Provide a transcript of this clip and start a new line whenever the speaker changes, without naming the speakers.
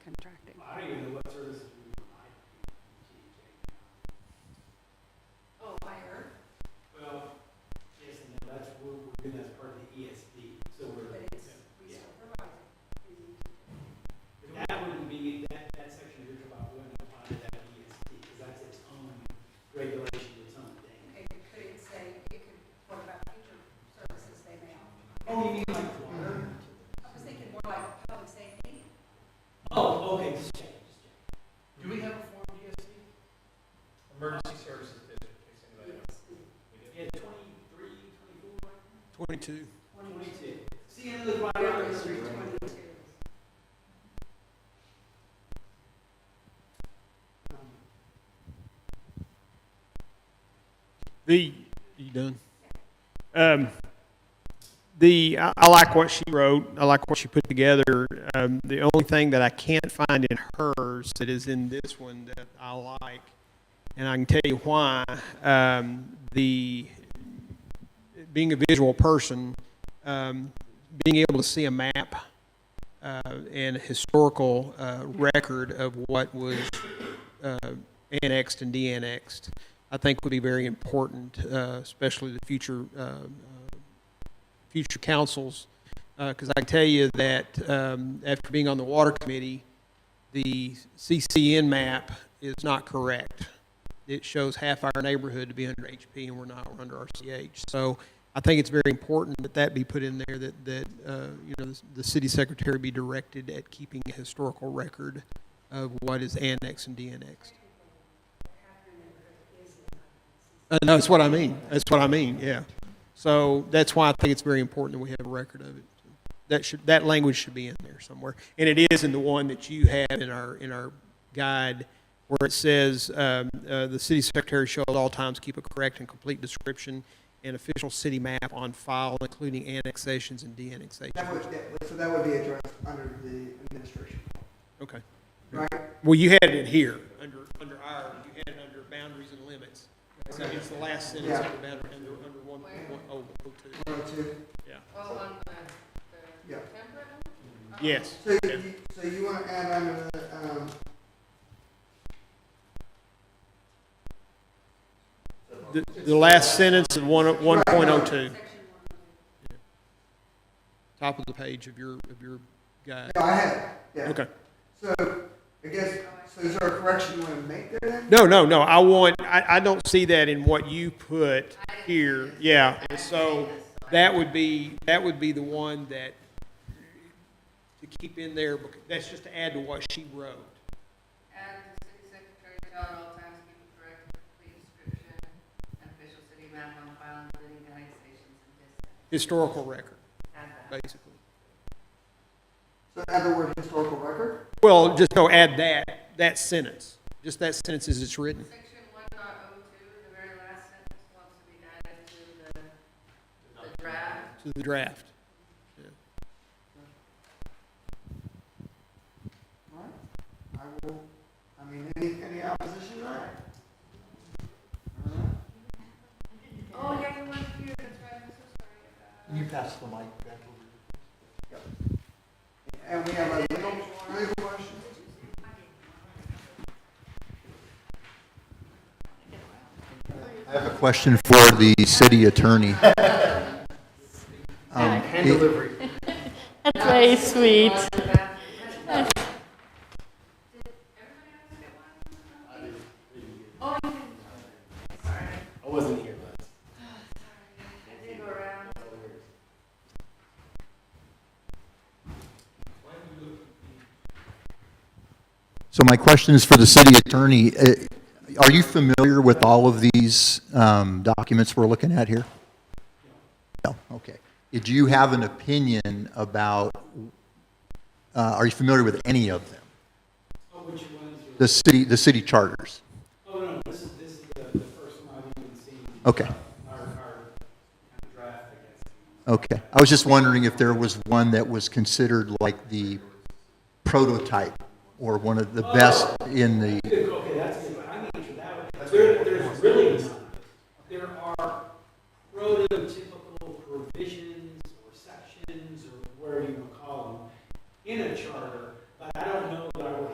contracting.
I don't even know what services we provide.
Oh, fire,
Well, yes, and no, that's, we're, we're doing that as part of the ESP, so
but
we're,
it's, we still provide.
that wouldn't be, that, that section you're talking about wouldn't apply to that ESP, because that's its own regulation, its own thing.
Okay, could it say, it could, what about future services they may offer?
Oh, you mean like water?
I was thinking more like public safety.
Oh, okay, just check, just check.
Do we have a form DSC? Emergency Services District, in case anybody knows.
Yeah, twenty-three, twenty-four,
Twenty-two.
twenty-two. See, and look right
Whatever
out
it is,
the street.
22.
The, you done? Um, the, I, I like what she wrote. I like what she put together. Um, the only thing that I can't find in hers that is in this one that I like, and I can tell you why, um, the, being a visual person, um, being able to see a map, uh, and historical, uh, record of what was, uh, annexed and de-annexed. I think would be very important, uh, especially the future, uh, uh, future councils. Because I can tell you that um, after being on the water committee, the CCN map is not correct. It shows half our neighborhood to be under HP and we're not, we're under RCH. So I think it's very important that that be put in there, that, that, uh, you know, the city secretary be directed at keeping a historical record of what is annexed and de-annexed. Uh, no, that's what I mean. That's what I mean. Yeah. So that's why I think it's very important that we have a record of it. That should that language should be in there somewhere, and it is in the one that you have in our in our guide, where it says um, uh, the city secretary shall at all times keep a correct and complete description and official city map on file, including annexations and de-annexations.
That would, that- so that would be addressed under the administration,
Okay.
right?
Well, you had it here under under our you had it under boundaries and limits. So it's the last sentence
Yeah.
under boundary under under one one oh oh two.
One or two,
Well, on the,
yeah.
the temporary,
Yes.
So you, so you want to add under the, um,
The, the last sentence of one, one point oh two,
Section one.
top of the page of your, of your guide.
yeah, I have, it, yeah.
Okay.
So, I guess, so is there a correction you want to make there then?
No, no, no, I want, I, I don't see that in what you put here, yeah, and so that would be, that would be the one that to keep in there, bec- that's just to add to what she wrote.
and the city secretary shall at all times keep a correct, complete description and official city map on file, including annexations and districts.
Historical record,
Add that.
basically.
So add the word historical record?
Well, just go add that, that sentence, just that sentence as it's written.
Section one dot oh two, the very last sentence wants to be added to the, the draft.
to the draft.
All right. I will, I mean, any, any opposition to that? All right.
Oh, yeah, the one here, that's right, I'm so sorry about.
Can you pass the mic back over?
And we have a legal, legal question?
I have a question for the city attorney. Um,
Hand
the-
delivery.
That's very sweet.
On the bathroom. Did everybody else get one? Oh, you didn't. Sorry.
I wasn't here, but.
I did go around.
So my question is for the city attorney. Uh, Are you familiar with all of these um, documents we're looking at here? No, okay. Did you have an opinion about, uh, are you familiar with any of them?
Oh, which ones? are-
The city, the city charters?
Oh, no, this is, this is the, the first one I've even seen.
Okay.
Our, our kind of draft, I guess.
Okay. I was just wondering if there was one that was considered like the prototype or one of the best in the,
Good, Okay, that's good, but I need to that one. There, there's really none. There are prototypical provisions or sections or whatever you want to call them in a charter, but I don't